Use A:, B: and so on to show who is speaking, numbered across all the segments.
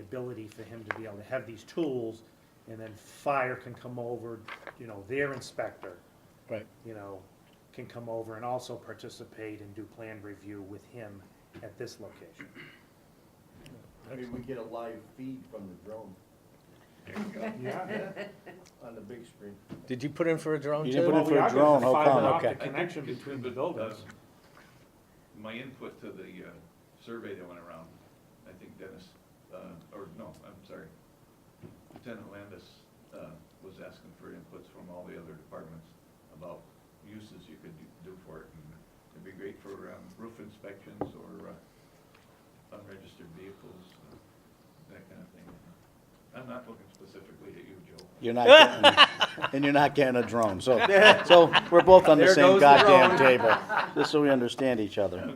A: ability for him to be able to have these tools, and then fire can come over, you know, their inspector,
B: Right.
A: you know, can come over and also participate and do plan review with him at this location.
C: I mean, we get a live feed from the drone
A: Yeah.
C: on the big screen.
B: Did you put in for a drone
D: You
B: too?
D: didn't put in for a drone, how come?
A: optic
D: Okay.
E: I think
A: connection
E: it's
A: between the
E: good, but,
A: buildings.
E: uh, My input to the uh, survey that went around, I think Dennis, uh, or no, I'm sorry, Lieutenant Landis uh, was asking for inputs from all the other departments about uses you could do- do for it. and It'd be great for um, roof inspections or uh, unregistered vehicles, uh, that kind of thing. I'm not looking specifically at you, Joe.
D: You're not getting, and you're not getting a drone, so, so we're both on the
B: There
D: same
B: goes the
D: goddamn table, just so we understand each other.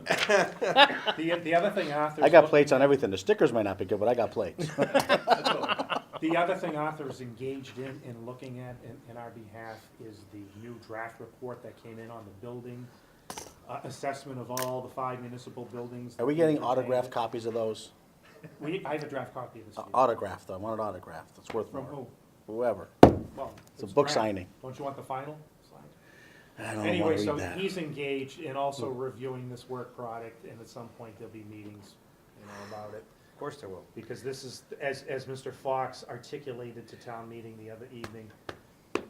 A: The, the other thing Arthur's.
D: I got
A: look-
D: plates on everything, the stickers might not be good, but I got plates.
E: That's all.
A: The other thing Arthur's engaged in, in looking at in, in our behalf is the new draft report that came in on the building, uh, assessment of all the five municipal buildings.
D: Are we getting autographed copies of those?
A: We, I have a draft copy of this.
D: Uh,
A: here.
D: Autographed, I want it autographed, it's worth
A: From
D: more,
A: who?
D: whoever.
A: Well.
D: It's a book
A: draft.
D: signing.
A: Don't you want the final?
D: I don't wanna
A: Anyway,
D: read
A: so
D: that. Hmm.
A: he's engaged in also reviewing this work product, and at some point there'll be meetings, you know, about it.
B: Of course there will.
A: Because this is, as, as Mr. Fox articulated to town meeting the other evening,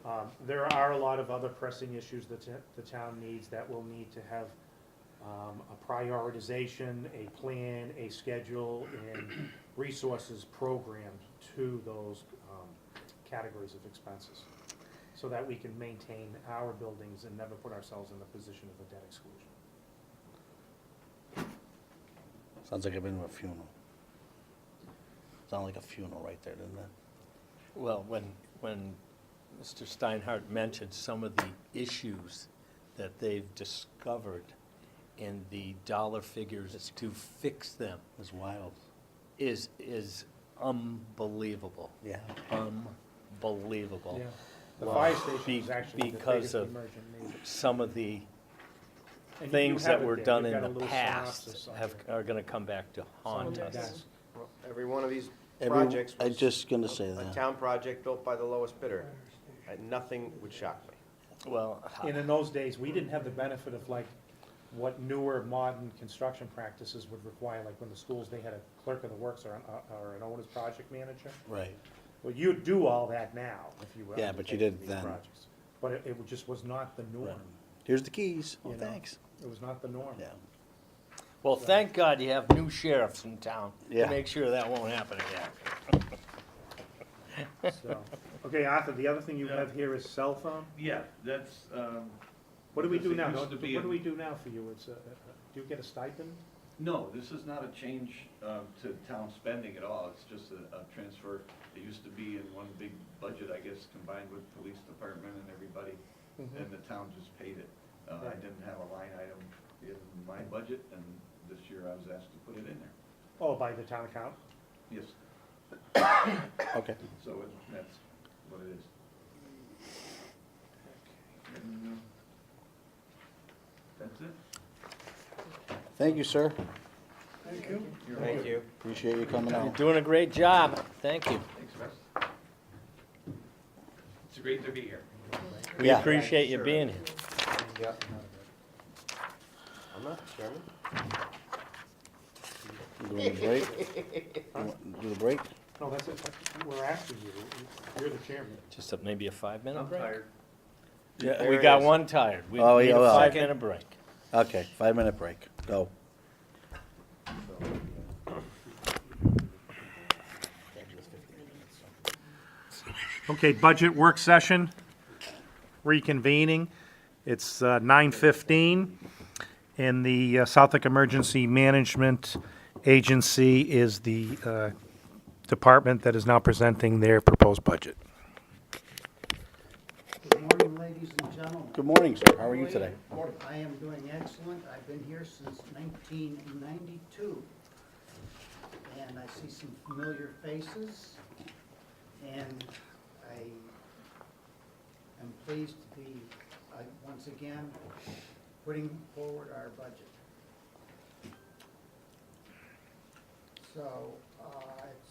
A: um, there are a lot of other pressing issues that t- the town needs that will need to have um, a prioritization, a plan, a schedule, and resources programmed to those um, categories of expenses, so that we can maintain our buildings and never put ourselves in the position of a debt exclusion.
D: Sounds like I've been to a funeral. Sound like a funeral right there, doesn't it?
B: Well, when, when Mr. Steinhardt mentioned some of the issues that they've discovered and the dollar figures to fix them
D: It's wild.
B: is, is unbelievable,
D: Yeah.
B: unbelievable.
A: The
B: Wow.
A: fire station
B: Be-
A: is actually the
B: because
A: biggest
B: of-
A: emergent major.
B: Some of the
A: And you- you
B: things
A: have
B: that
A: it
B: were
A: there.
B: done
A: You've
B: in
A: got a
B: the
A: little
B: past
A: synopsis on
B: have,
A: there.
B: are gonna come back to haunt
A: Some of
B: us.
A: that's-
F: Well, Every one of these
D: Every-
F: projects
D: I
F: was
D: just gonna say
F: a
D: that.
F: town project built by the lowest bidder. And Nothing would shock me.
B: Well,
A: And in those days, we didn't have the benefit of like what newer modern construction practices would require, like when the schools, they had a clerk of the works or an, uh, or an owner's project manager.
D: Right.
A: Well, you do all that now, if you were.
D: Yeah, but you
A: undertaking
D: didn't
A: these
D: then.
A: projects. But it, it just was not the norm.
D: Here's the keys.
A: You
D: Oh,
A: know?
D: thanks.
A: It was not the norm.
D: Yeah.
B: well, thank God you have new sheriffs in town
D: Yeah.
B: to make sure that won't happen again.
A: So, okay, Arthur, the other thing you have here is cell phone.
E: Yeah, that's, um,
A: What do we do now?
E: Because it used
A: What
E: to be
A: do
E: in-
A: we do now for you? It's, uh, uh, do you get a stipend?
E: No, this is not a change um, to town spending at all, it's just a, a transfer. It used to be in one big budget, I guess, combined with police department and everybody, and the town just paid it. Uh, I
A: Right.
E: didn't have a line item in my budget, and this year I was asked to put it in there.
A: Oh, by the town account?
E: Yes,
D: Okay.
E: so it- that's what it is. And, um, That's it.
D: Thank you, sir.
E: You're
F: Thank
E: welcome.
F: you.
D: Appreciate you coming
B: You're
D: out.
B: doing a great job, thank you.
E: Thanks, Russ. It's great to be here.
B: We
D: Yeah.
B: appreciate you
F: Sure.
B: being here.
F: I'm not the chairman.
D: Doing the break. You want- Do the break?
A: No, that's it. We're asking you. You're the chairman.
B: Just a- maybe a five-minute
E: I'm
B: break?
E: tired.
B: Yeah,
F: There
B: we
F: it
B: got
F: is.
B: one tired. We
D: Oh,
B: need
D: yeah,
B: a
D: well.
B: five-minute break.
D: Okay, five minute break. Go.
A: Okay, budget work session, reconvening. It's uh, nine fifteen, and the uh, Southwick Emergency Management Agency is the uh, department that is now presenting their proposed budget.
G: Good morning, ladies and gentlemen.
D: Good morning, sir. How are you today?
G: I am doing excellent. I've been here since 1992. And I see some familiar faces. And I am pleased to be, uh, once again, putting forward our budget. So uh, if